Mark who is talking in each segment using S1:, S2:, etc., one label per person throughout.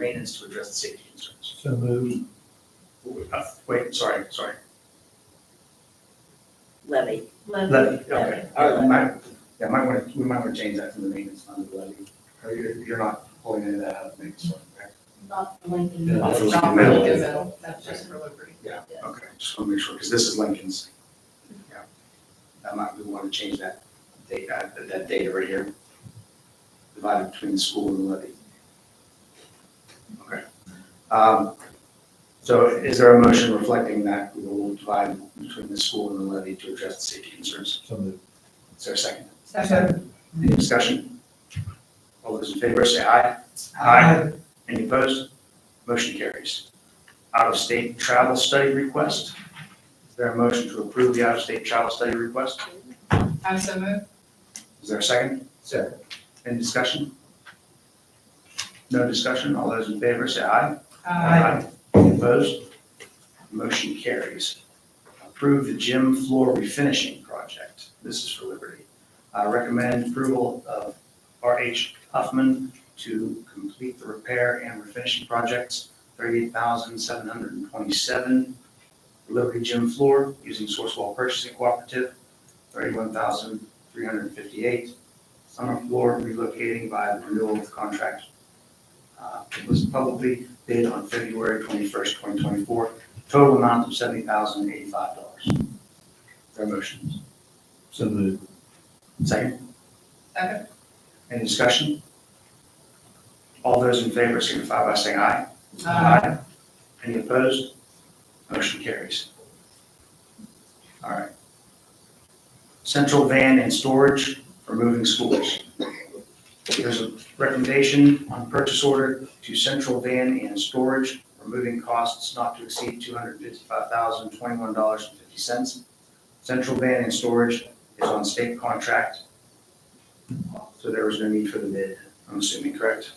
S1: maintenance to address the safety concerns.
S2: So moved.
S1: Uh, Wait, sorry, sorry.
S3: levy.
S1: Levy, okay.
S3: Our
S1: Yeah,
S3: levy.
S1: might- Yeah, might want to, we might want to change that from the maintenance fund to levy. Or You're, you're not pulling any of that out of maintenance fund, correct?
S4: Not the Lincoln.
S2: Yeah,
S1: that's what we
S4: Not
S1: meant.
S4: Lincoln Middle, that's just for Liberty.
S1: Okay, just want to make sure, because this is Lincoln's. Yeah. I might, we want to change that data, that data right here. Divided between the school and the levy. Okay. Um, So is there a motion reflecting that we will divide between the school and the levy to address the safety concerns?
S2: So moved.
S1: Is there a second?
S4: Second.
S1: Any discussion? All those in favor say aye. Any opposed? Motion carries. Out-of-state travel study request. Is there a motion to approve the out-of-state travel study request?
S4: I so moved.
S1: Is there a second?
S2: Second.
S1: Any discussion? No discussion? All those in favor say aye.
S4: Aye.
S1: Any opposed? Motion carries. Approve the gym floor refinishing project. This is for Liberty. I recommend approval of R.H. Huffman to complete the repair and refinishing projects, $38,727 Liberty gym floor using Sourcewell Purchasing Cooperative, $31,358 summer floor relocating by the renewal of contract. Uh, It was publicly bid on February twenty-first, twenty twenty-four, total amount of seventy thousand eighty-five dollars. There are motions.
S2: So moved.
S1: Second,
S4: Second.
S1: any discussion? All those in favor signify by saying aye. Any opposed? Motion carries. All right. Central van and storage for moving schools. There's a recommendation on purchase order to central van and storage, removing costs not to exceed two hundred fifty-five thousand, twenty-one dollars and fifty cents. Central van and storage is on state contract. So there was no need for the bid, I'm assuming, correct?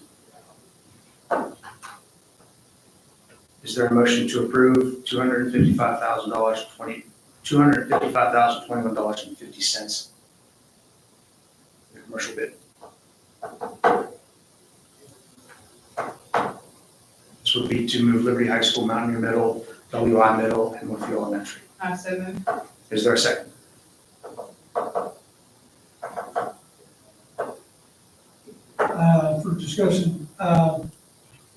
S1: Is there a motion to approve two hundred fifty-five thousand dollars, twenty, two hundred fifty-five thousand, twenty-one dollars and fifty cents? The commercial bid. This would be to move Liberty High School, Mountaineer Middle, WI Middle, and Woodfield Elementary.
S4: I so moved.
S1: Is there a second?
S5: uh, for discussion, uh,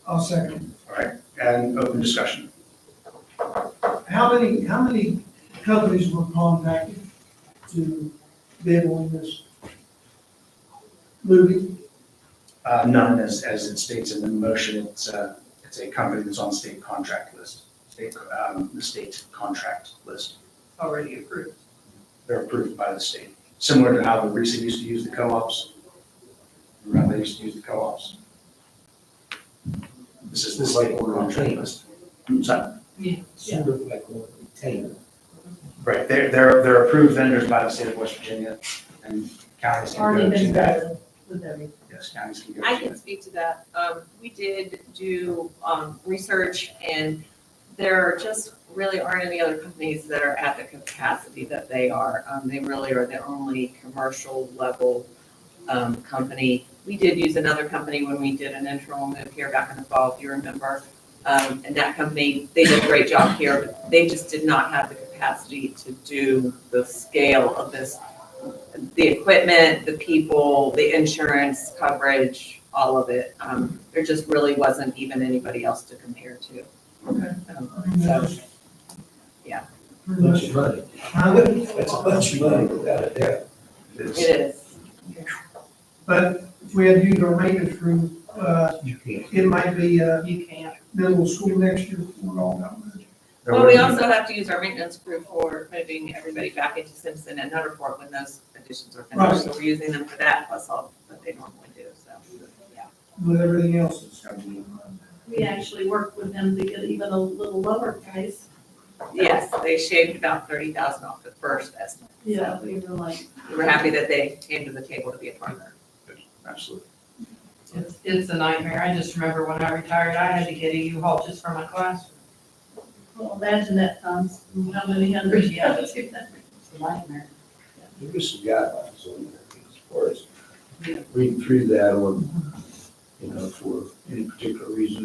S5: I'll second.
S1: All right, and open discussion.
S5: How many, how many companies were contacted to bid on this movie?
S1: Uh, None, as, as it states in the motion, it's a, it's a company that's on state contract list, state, um, the state contract list.
S4: Already approved.
S1: They're approved by the state, similar to how the recent used to use the co-ops. Remember, they used to use the co-ops. This is the state contract list. Hmm, sorry.
S2: Sort of like a retainer.
S1: Right, they're, they're, they're approved vendors by the state of West Virginia, and counties can go to that.
S4: with everything.
S1: Yes, counties can go
S6: I
S1: to
S6: can
S1: that.
S6: speak to that. Um, we did do, um, research and there just really aren't any other companies that are at the capacity that they are. Um, they really are the only commercial level, um, company. We did use another company when we did an interim move here back in the fall, if you remember. Um, and that company, they did a great job here, but they just did not have the capacity to do the scale of this the equipment, the people, the insurance coverage, all of it. Um, there just really wasn't even anybody else to compare to.
S5: Okay.
S6: Um, So, Yeah.
S5: Pretty
S2: Bunch
S5: much.
S2: of money.
S5: Huh?
S2: That's a bunch of money without a doubt.
S1: It's-
S6: it is.
S5: But if we had used our maintenance room, uh,
S2: You can't.
S5: it might be, uh,
S4: You can't.
S5: middle school next year.
S1: there
S6: Well, we
S1: wouldn't
S6: also have to use our maintenance crew for moving everybody back into Simpson and Nutter when those additions are finished. So we're using them for that plus all that they normally do, so, yeah.
S5: with everything else that's gotta be.
S7: We actually worked with them to get even a little lower price.
S6: Yes, they shaved about thirty thousand off the first estimate.
S7: Yeah, we were like,
S6: We were happy that they came to the table to be a partner.
S1: be. Absolutely.
S4: It's, it's a nightmare. I just remember when I retired, I had to get a U-Haul just for my classroom.
S7: well, imagine that times how many hundreds you have to do that.
S4: It's a nightmare.
S2: There is some guidelines on there as far as
S4: Yeah.
S2: reading through that or, you know, for any particular reason